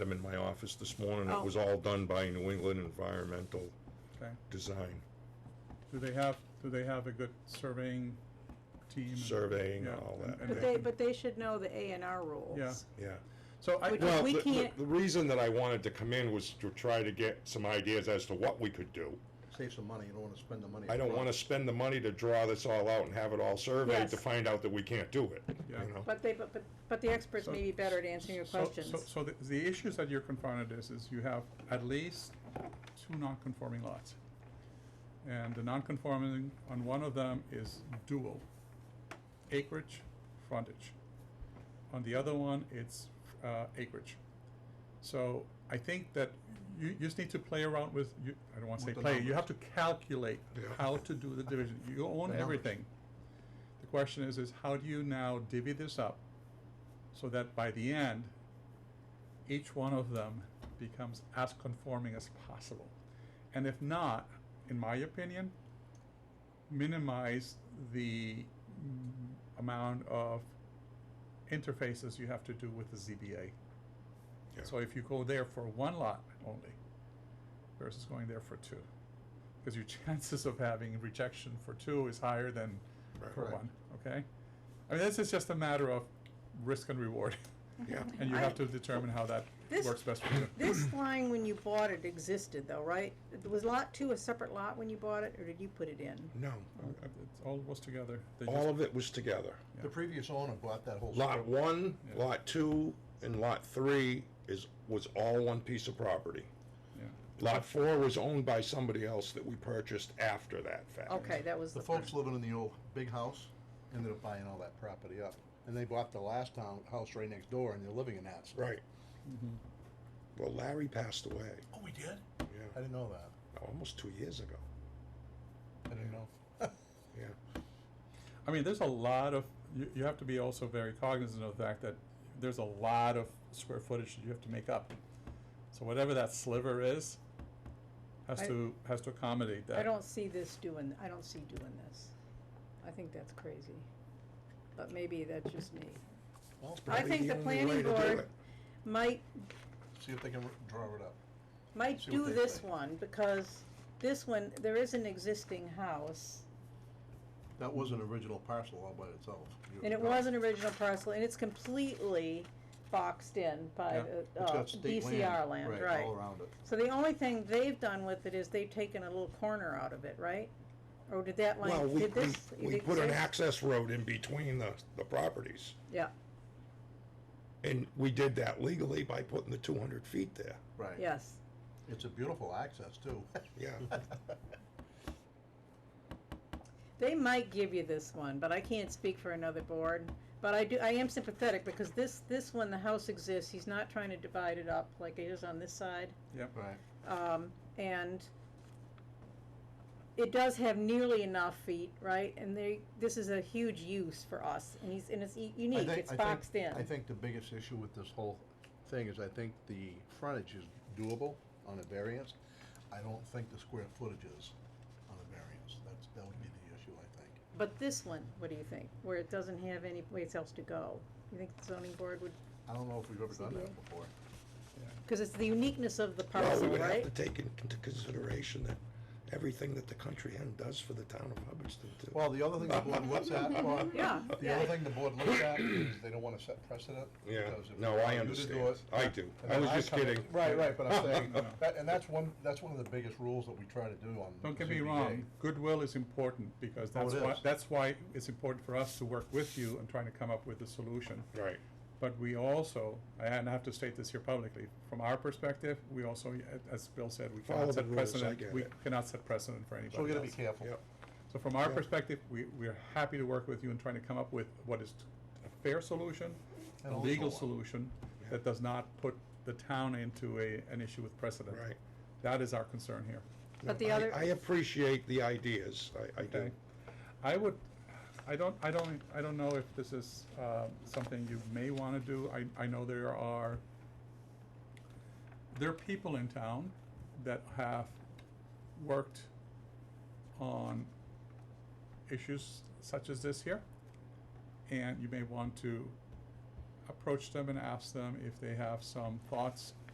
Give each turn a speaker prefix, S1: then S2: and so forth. S1: them in my office this morning. It
S2: Oh.
S1: was all done by New England Environmental
S3: Okay.
S1: Design
S3: Do they have, do they have a good surveying team? and-
S1: Surveying and
S3: yeah,
S1: all
S3: and-
S1: that.
S3: and
S2: But they, but they should know the A and R rules.
S3: Yeah.
S1: Yeah.
S3: So I,
S2: Which-
S1: Well,
S2: we
S1: the- the-
S2: can't-
S1: The reason that I wanted to come in was to try to get some ideas as to what we could do.
S4: Save some money, you don't wanna spend the money.
S1: I don't wanna spend the money to draw this all out and have it all surveyed to
S2: Yes.
S1: find out that we can't do it, you
S3: Yeah.
S1: know?
S2: But they, but, but, but the experts
S3: So-
S2: may be better at answering your
S3: so- so-
S2: questions.
S3: So the, the issues that you're confronted is, is you have at least two non-conforming lots. And the non-conforming on one of them is dual acreage, frontage. On the other one, it's, uh, acreage. So I think that you, you just need to play around with, you, I don't wanna
S4: With
S3: say
S4: the
S3: play, you
S4: numbers.
S3: have to calculate
S1: Yeah.
S3: how to do the division. You own
S4: The numbers.
S3: everything. The question is, is how do you now divvy this up so that by the end, each one of them becomes as conforming as possible? And if not, in my opinion, minimize the mm, amount of interfaces you have to do with the ZBA.
S1: Yeah.
S3: So if you go there for one lot only versus going there for two, because your chances of having rejection for two is higher than
S1: Right.
S3: for
S4: Correct.
S3: one, okay? I mean, this is just a matter of risk and reward,
S1: Yeah.
S3: and you
S2: I-
S3: have to determine how that
S2: This-
S3: works best for you.
S2: This line, when you bought it, existed though, right? Was lot two a separate lot when you bought it, or did you put it in?
S1: No,
S3: Uh, It's all was together. They just-
S1: all of it was together.
S4: The previous owner bought that whole.
S1: Lot one,
S3: Yeah.
S1: lot two, and lot three is, was all one piece of property.
S3: yeah.
S1: Lot four was owned by somebody else that we purchased after that fact.
S2: Okay, that was
S4: The
S2: the.
S4: folks living in the old big house ended up buying all that property up, and they bought the last town, house right next door, and they're living in that.
S1: Right.
S3: Mm-hmm.
S1: Well, Larry passed away,
S4: Oh, we did? I
S1: yeah,
S4: didn't know that,
S1: almost two years ago,
S4: I didn't know.
S1: yeah.
S3: I mean, there's a lot of, you, you have to be also very cognizant of the fact that there's a lot of square footage that you have to make up. So whatever that sliver is, has
S2: I-
S3: to, has to accommodate that.
S2: I don't see this doing, I don't see doing this. I think that's crazy. But maybe that's just me.
S4: Well,
S2: I
S1: Probably
S2: think
S1: the
S2: the
S1: only way
S2: planning
S1: to do
S2: board
S1: it.
S2: might
S4: see if they can r- draw it up.
S2: might
S4: See what
S2: do
S4: they
S2: this
S4: say.
S2: one, because this one, there is an existing house,
S4: That was an original parcel all by itself. years
S2: and it
S4: ago.
S2: was an original parcel, and it's completely boxed in by
S3: Yeah.
S2: the,
S4: It's
S2: uh,
S4: got state
S2: DCR land, right?
S4: All around it.
S2: So the only thing they've done with it is they've taken a little corner out of it, right? Or did that
S1: Well,
S2: line,
S1: we,
S2: did
S1: we,
S2: this? it
S1: we put an
S2: exist?
S1: access road in between the, the properties,
S2: Yeah,
S1: and we did that legally by putting the two hundred feet there,
S4: Right.
S2: yes.
S4: It's a beautiful access too.
S1: yeah.
S2: They might give you this one, but I can't speak for another board. But I do, I am sympathetic because this, this one, the house exists. He's not trying to divide it up like it is on this side.
S3: Yep.
S4: Right.
S2: Um, and it does have nearly enough feet, right? And they, this is a huge use for us and he's, and it's u-
S4: I
S2: unique.
S4: think-
S2: It's
S4: I think-
S2: boxed in.
S4: I think the biggest issue with this whole thing is I think the frontage is doable on a variance. I don't think the square footage is on a variance. That's, that would be the issue, I think.
S2: But this one, what do you think? Where it doesn't have any place else to go? You think the zoning board would,
S4: I don't know if we've ever done that before.
S2: because it's the uniqueness of the
S1: Well, we
S2: parcel,
S1: would have to
S2: right?
S1: take into consideration that everything that the country end does for the town of Hubbardston too.
S4: Well, the other thing the board looks at, Bob,
S2: Yeah,
S4: the other
S2: yeah.
S4: thing the board looks at is they don't wanna set precedent. because if
S1: No,
S4: they
S1: I
S4: want you to do
S1: understand,
S4: it,
S1: I do,
S4: and
S1: I
S4: then
S1: was just
S4: come in-
S1: kidding.
S4: Right, right, but I'm saying, that- and that's one, that's one of the biggest rules that we try to do on.
S3: Don't get me
S4: ZBA.
S3: wrong, goodwill is important because
S4: Oh,
S3: that's
S4: it
S3: why,
S4: is.
S3: that's why it's important for us to work with you and trying to come up with a solution.
S1: Right,
S3: But we also, and I have to state this here publicly, from our perspective, we also, as Bill said, we
S1: Follow
S3: cannot
S1: the
S3: set
S1: rules, I
S3: precedent,
S1: get
S3: we
S1: it.
S3: cannot set precedent for
S4: So we
S3: anybody
S4: gotta be
S3: else.
S4: careful.
S1: yep,
S3: So from our
S1: Yeah.
S3: perspective, we, we're happy to work with you in trying to come up with what is a fair solution,
S4: And
S3: a
S4: also
S3: legal
S4: one.
S3: solution that does not put the town into a, an issue with precedent.
S1: right.
S3: That is our concern here.
S2: But
S1: No,
S2: the
S1: I-
S2: other-
S1: I appreciate the ideas, I, I do.
S3: Okay. I would, I don't, I don't, I don't know if this is, uh, something you may wanna do, I, I know there are, there are people in town that have worked on issues such as this here, and you may want to approach them and ask them if they have some thoughts